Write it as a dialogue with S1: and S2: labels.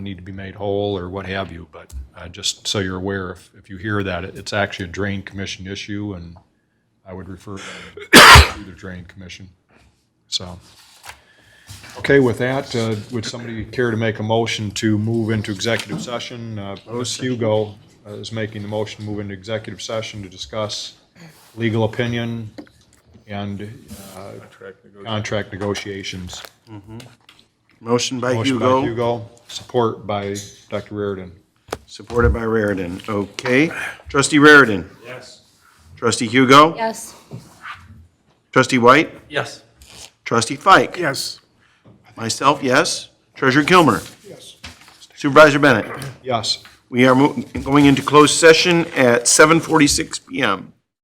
S1: need to be made whole or what have you, but uh, just so you're aware, if, if you hear that, it- it's actually a drain commission issue, and I would refer to the drain commission, so. Okay, with that, uh, would somebody care to make a motion to move into executive session? Uh, Bruce Hugo uh, is making the motion to move into executive session to discuss legal opinion and uh, contract negotiations.
S2: Motion by
S1: Motion by
S2: Hugo,
S1: Hugo, support by Dr. Reardon.
S2: supported by Raridan. Okay. Trustee Raridan? Yes. Trustee Hugo?
S3: Yes.
S2: Trustee White?
S4: Yes.
S2: Trustee Fike?
S4: Yes.
S2: Myself, yes. Treasurer Kilmer? Yes. Supervisor Bennett?
S1: Yes.
S2: We are mo- going into closed session at 7:46 PM.